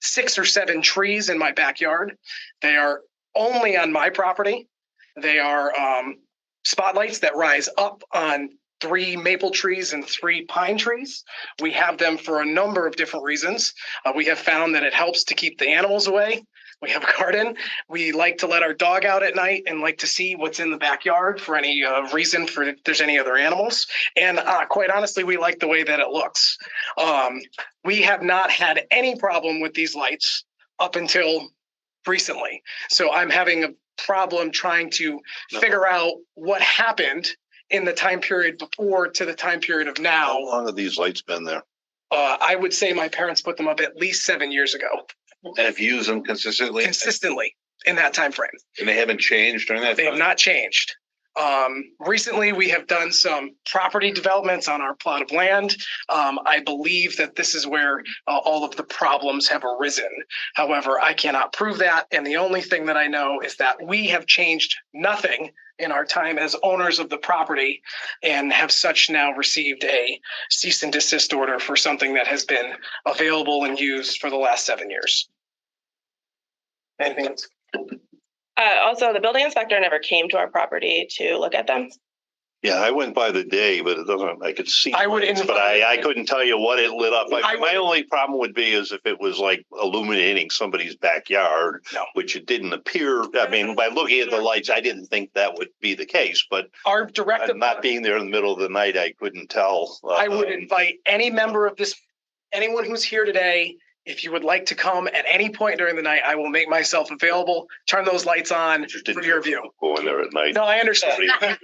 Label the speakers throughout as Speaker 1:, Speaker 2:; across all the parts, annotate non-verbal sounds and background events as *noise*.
Speaker 1: six or seven trees in my backyard. They are only on my property. They are um, spotlights that rise up on three maple trees and three pine trees. We have them for a number of different reasons. Uh, we have found that it helps to keep the animals away. We have a garden. We like to let our dog out at night and like to see what's in the backyard for any uh, reason for if there's any other animals. And uh, quite honestly, we like the way that it looks. Um, we have not had any problem with these lights up until recently. So I'm having a problem trying to figure out what happened in the time period before to the time period of
Speaker 2: How
Speaker 1: now.
Speaker 2: long have these lights been there?
Speaker 1: Uh, I would say my parents put them up at least seven years ago,
Speaker 2: And if you use them consistently
Speaker 1: consistently in that time frame.
Speaker 2: and they haven't changed during that?
Speaker 1: They have
Speaker 2: time?
Speaker 1: not changed. Um, recently, we have done some property developments on our plot of land. Um, I believe that this is where uh, all of the problems have arisen. However, I cannot prove that. And the only thing that I know is that we have changed nothing in our time as owners of the property and have such now received a cease and desist order for something that has been available and used for the last seven years. Anything else?
Speaker 3: Uh, also, the building inspector never came to our property to look at them. *laughs*
Speaker 2: Yeah, I went by the day, but it doesn't, I could see.
Speaker 1: I would
Speaker 2: lights, But
Speaker 1: invite-
Speaker 2: I, I couldn't tell you what it lit up.
Speaker 1: I
Speaker 2: I-
Speaker 1: would-
Speaker 2: My only problem would be is if it was like illuminating somebody's backyard.
Speaker 1: No.
Speaker 2: Which it didn't appear, I mean, by looking at the lights, I didn't think that would be the case, but
Speaker 1: Our directive.
Speaker 2: not being there in the middle of the night, I couldn't tell.
Speaker 1: I would
Speaker 2: um,
Speaker 1: invite any member of this, anyone who's here today, if you would like to come at any point during the night, I will make myself available, turn those lights on.
Speaker 2: just didn't
Speaker 1: for your view.
Speaker 2: Go in there at night.
Speaker 1: No, I understand.
Speaker 2: Somebody-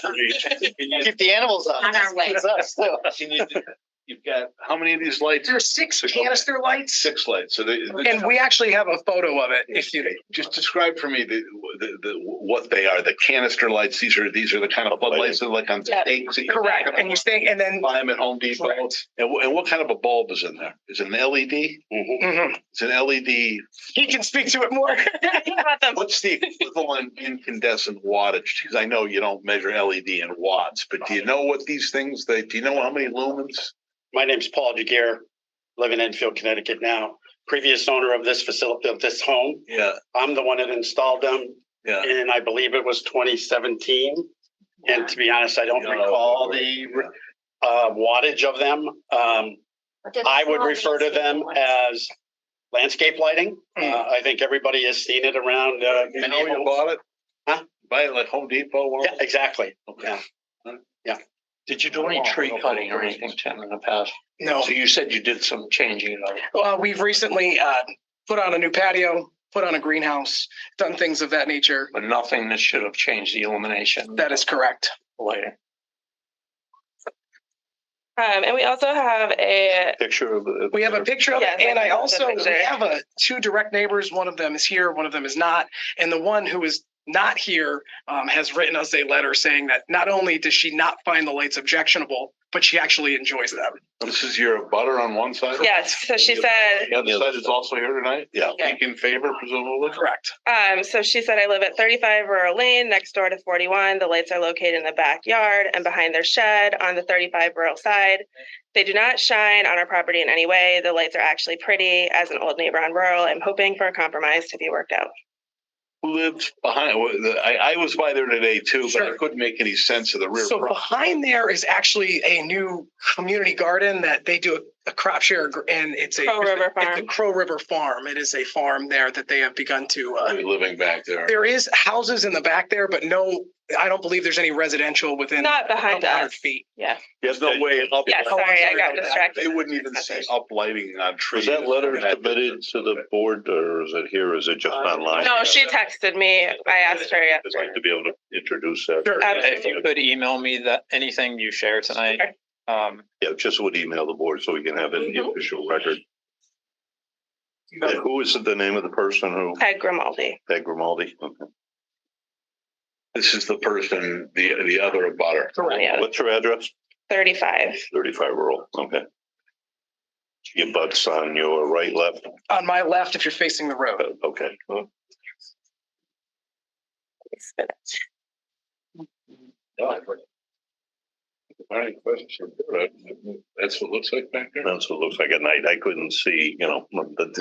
Speaker 4: Keep the animals on.
Speaker 5: On our way.
Speaker 4: It's us, too.
Speaker 6: You need to- You've got, how many of these lights?
Speaker 1: There's six canister lights
Speaker 6: Six lights. So they, they-
Speaker 1: and we actually have a photo of it if you,
Speaker 6: just describe for me the, the, the, what they are, the canister lights. These are, these are the kind of bulb lights that are like on
Speaker 3: Yeah.
Speaker 6: stakes. that you
Speaker 1: correct.
Speaker 6: pick up
Speaker 1: And you stay, and then,
Speaker 6: Buy them at Home Depot. And,
Speaker 1: Correct.
Speaker 6: wh- and what kind of a bulb is in there? Is it an E LED?
Speaker 7: Mm-hmm.
Speaker 1: Mhm.
Speaker 6: It's an LED.
Speaker 1: he can speak to it more. *laughs*
Speaker 3: Think about them.
Speaker 6: E What's the equivalent *laughs* incandescent wattage? Because I know you don't measure LED in watts, but do you know what these things, they, do you know how many lumens?
Speaker 4: My name's Paul DeGear, live in Enfield, Connecticut now. Previous owner of this facility, of this home.
Speaker 6: Yeah,
Speaker 4: I'm the one that installed them
Speaker 6: yeah.
Speaker 4: and I believe it was twenty seventeen. And to be honest, I don't
Speaker 6: Yeah.
Speaker 4: recall the uh, wattage of them. Um, I would refer to them as landscape lighting.
Speaker 6: Hmm.
Speaker 4: Uh, I think everybody has seen it around. uh,
Speaker 6: You know
Speaker 4: many
Speaker 6: you
Speaker 4: homes.
Speaker 6: bought it?
Speaker 4: Huh?
Speaker 6: Buy it at Home Depot? one of
Speaker 4: Yeah, exactly.
Speaker 6: those?
Speaker 4: yeah.
Speaker 7: Did you do any tree cutting or anything, Tim, in the past?
Speaker 1: No.
Speaker 7: So you said you did some changing of it.
Speaker 1: Uh, we've recently, uh, put on a new patio, put on a greenhouse, done things of that nature.
Speaker 7: but nothing that should have changed the illumination
Speaker 1: That is correct.
Speaker 7: later.
Speaker 3: Um, and we also have a,
Speaker 2: *laughs* Picture of. the-
Speaker 1: We have a picture of
Speaker 3: Yes,
Speaker 1: it,
Speaker 3: I
Speaker 1: and I
Speaker 3: can look
Speaker 1: also
Speaker 3: at the
Speaker 1: we
Speaker 3: picture.
Speaker 1: have a two direct neighbors. One of them is here, one of them is not, and the one who is not here um, has written us a letter saying that not only does she not find the lights objectionable, but she actually enjoys them.
Speaker 6: This is your butter on one side?
Speaker 3: yes, so she said,
Speaker 6: The other side is also here tonight?
Speaker 2: Yeah.
Speaker 6: Week in favor presumably?
Speaker 1: Correct.
Speaker 3: um, so she said, I live at thirty-five Rural Lane, next door to forty-one. The lights are located in the backyard and behind their shed on the thirty-five Rural side. They do not shine on our property in any way. The lights are actually pretty. As an old neighbor on Rural, I'm hoping for a compromise to be worked out.
Speaker 6: Who lives behind, I, I was by there today too, but I couldn't make any sense of the rear.
Speaker 1: So behind there is actually a new community garden that they do a, a crop share, gr- and it's a
Speaker 3: Crow River
Speaker 1: It's a
Speaker 3: Farm.
Speaker 1: Crow River Farm. It is a farm there that they have begun to. Uh,
Speaker 6: property Living back there.
Speaker 1: there is houses in the back there, but no, I don't believe there's any residential within a
Speaker 3: Not behind
Speaker 1: couple hundred
Speaker 3: us.
Speaker 1: feet.
Speaker 6: There's no way up.
Speaker 3: Yeah,
Speaker 1: Oh, I'm
Speaker 3: sorry, I
Speaker 1: sorry about
Speaker 3: got
Speaker 1: that.
Speaker 3: distracted.
Speaker 6: They wouldn't even see up lighting on
Speaker 2: Was
Speaker 6: trees.
Speaker 2: that letter submitted to the board or is it here? Is it just online?
Speaker 3: No, she texted me. I asked her Um,
Speaker 2: I'd like
Speaker 3: yesterday.
Speaker 2: to be able to introduce that.
Speaker 1: Sure.
Speaker 7: If you could email me that, anything you share tonight,
Speaker 3: Sure.
Speaker 7: um,
Speaker 2: Yeah, just would email the board so we can have it in the official record.
Speaker 1: You
Speaker 2: And
Speaker 1: know,
Speaker 2: who is the name of the person who,
Speaker 3: Peg Grimaldi.
Speaker 2: Peg Grimaldi? Okay.
Speaker 6: This is the person, the, the other butter.
Speaker 1: Correct.
Speaker 3: Yeah,
Speaker 2: What's her address?
Speaker 3: 35.
Speaker 2: Thirty-five rural, okay. Your butts on your right, left,
Speaker 1: On my left, if you're facing the road.
Speaker 2: okay.
Speaker 6: All right, questions? That's what it looks like back there?
Speaker 2: That's what it looks like at night. I couldn't see, you know, the,